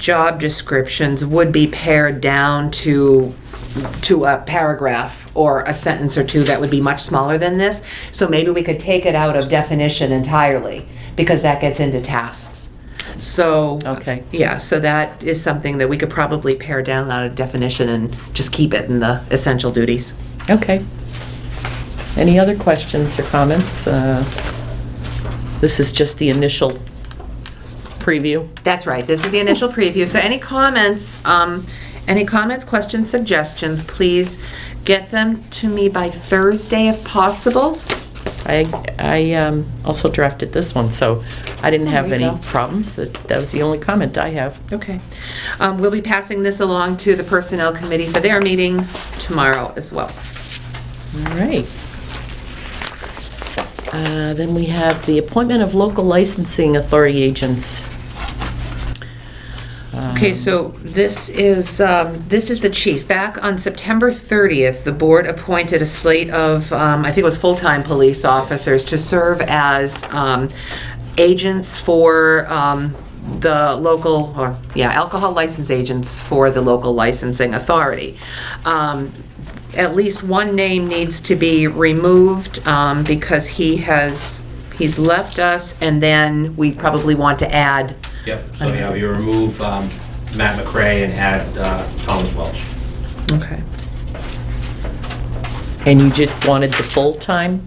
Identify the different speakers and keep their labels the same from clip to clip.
Speaker 1: job descriptions would be pared down to, to a paragraph or a sentence or two that would be much smaller than this. So maybe we could take it out of definition entirely, because that gets into tasks. So.
Speaker 2: Okay.
Speaker 1: Yeah, so that is something that we could probably pare down out of definition and just keep it in the essential duties.
Speaker 2: Okay. Any other questions or comments? Uh, This is just the initial preview.
Speaker 1: That's right, this is the initial preview, so any comments, um, any comments, questions, suggestions, please get them to me by Thursday if possible.
Speaker 2: I, I um, also drafted this one, so I didn't have
Speaker 1: There you
Speaker 2: any
Speaker 1: go.
Speaker 2: problems. That that was the only comment I have.
Speaker 1: Okay. Um, we'll be passing this along to the Personnel Committee for their meeting tomorrow as well.
Speaker 2: All right. Uh, Then we have the appointment of local licensing authority agents.
Speaker 1: Okay, so this is, um, this is the chief. Back on September 30th, the board appointed a slate of, um, I think it was full-time police officers to serve as um, agents for um, the local, or, yeah, alcohol license agents for the local licensing authority. Um, at least one name needs to be removed um, because he has, he's left us, and then we probably want to add.
Speaker 3: Yep, so yeah, we remove um, Matt McRae and add uh, Thomas Welch.
Speaker 1: Okay.
Speaker 2: And you just wanted the full-time,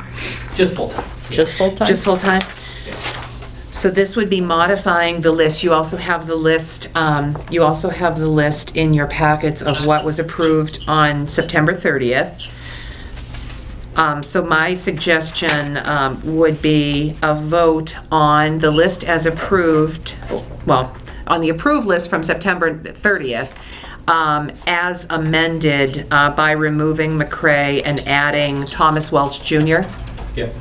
Speaker 3: Just full-time.
Speaker 2: just full-time?
Speaker 1: Just full-time? So this would be modifying the list. You also have the list, um, you also have the list in your packets of what was approved on September 30th. Um, So my suggestion um, would be a vote on the list as approved, well, on the approved list from September 30th, um, as amended uh, by removing McCray and adding Thomas Welch Jr.
Speaker 3: Yep.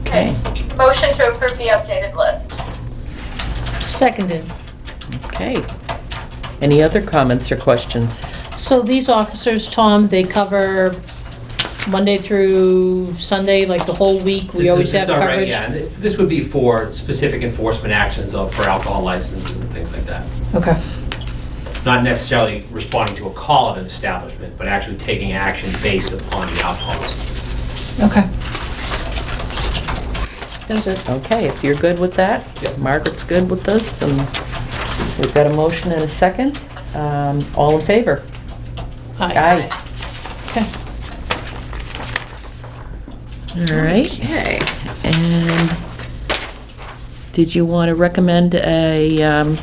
Speaker 2: Okay.
Speaker 4: Motion to approve the updated list.
Speaker 5: Seconded.
Speaker 2: Okay. Any other comments or questions?
Speaker 5: So these officers, Tom, they cover Monday through Sunday, like the whole week? We
Speaker 3: This
Speaker 5: always
Speaker 3: is- this
Speaker 5: have
Speaker 3: is all right,
Speaker 5: coverage?
Speaker 3: Yeah, and th- this would be for specific enforcement actions of, for alcohol licenses and things like that.
Speaker 5: Okay.
Speaker 3: Not necessarily responding to a call at an establishment, but actually taking action based upon the alcohol license.
Speaker 5: Okay. That was it.
Speaker 2: Okay, if you're good with that,
Speaker 3: Yep.
Speaker 2: Margaret's good with this, and we've got a motion and a second. Um, All in favor?
Speaker 5: Aye. Okay.
Speaker 2: All right,
Speaker 1: Okay.
Speaker 2: and did you want to recommend a, um,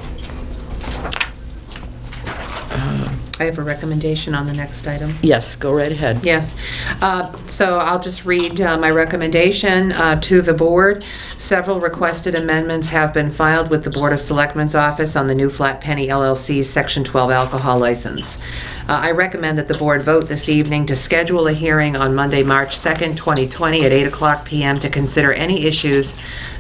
Speaker 1: I have a recommendation on the next item.
Speaker 2: yes, go right ahead.
Speaker 1: Yes. Uh, So I'll just read uh, my recommendation uh, to the board. Several requested amendments have been filed with the Board of Selectmen's Office on the new Flat Penny LLC's Section 12 alcohol license. Uh, I recommend that the board vote this evening to schedule a hearing on Monday, March 2nd, 2020, at 8 o'clock PM to consider any issues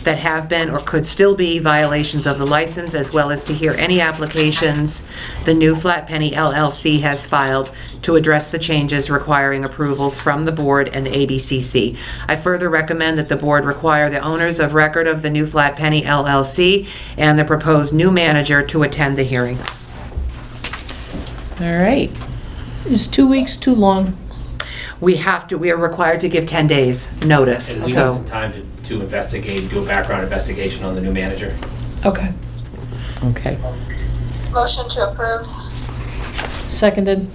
Speaker 1: that have been or could still be violations of the license, as well as to hear any applications the new Flat Penny LLC has filed to address the changes requiring approvals from the board and the ABCC. I further recommend that the board require the owners of record of the new Flat Penny LLC and the proposed new manager to attend the hearing.
Speaker 2: All right,
Speaker 5: Is two weeks too long?
Speaker 1: We have to, we are required to give 10 days
Speaker 3: And
Speaker 1: notice,
Speaker 3: we have
Speaker 1: so,
Speaker 3: some time to- to investigate, do a background investigation on the new manager.
Speaker 5: Okay.
Speaker 2: okay.
Speaker 4: Motion to approve.
Speaker 5: Seconded.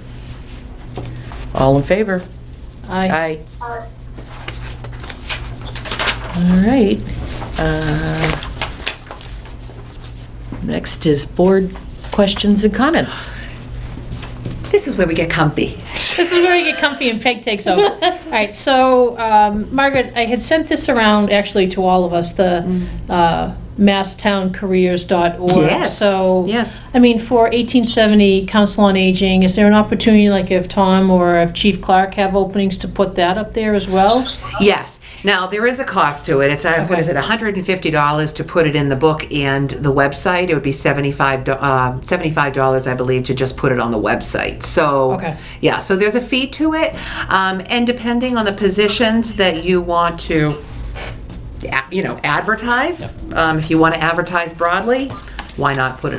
Speaker 2: All in favor?
Speaker 5: Aye.
Speaker 2: Aye.
Speaker 4: Aye.
Speaker 2: All right. Uh, Next is board questions and comments.
Speaker 1: this is where we get comfy.
Speaker 5: This is where we get comfy and Peg takes over. All right, so um, Margaret, I had sent this around actually to all of us, the
Speaker 1: Mm.
Speaker 5: uh, masstowncareers.org.
Speaker 1: Yes,
Speaker 5: So
Speaker 1: yes.
Speaker 5: I mean, for 1870 Council on Aging, is there an opportunity, like if Tom or if Chief Clark have openings, to put that up there as well?
Speaker 1: Yes. Now, there is a cost to it. It's, uh, what is it,
Speaker 5: Okay.
Speaker 1: $150 to put it in the book and the website. It would be $75, do- uh, $75, I believe, to just put it on the website. So,
Speaker 5: Okay.
Speaker 1: yeah, so there's a fee to it. Um, And depending on the positions that you want to, a- you know, advertise, um, if you want to advertise broadly, why not put it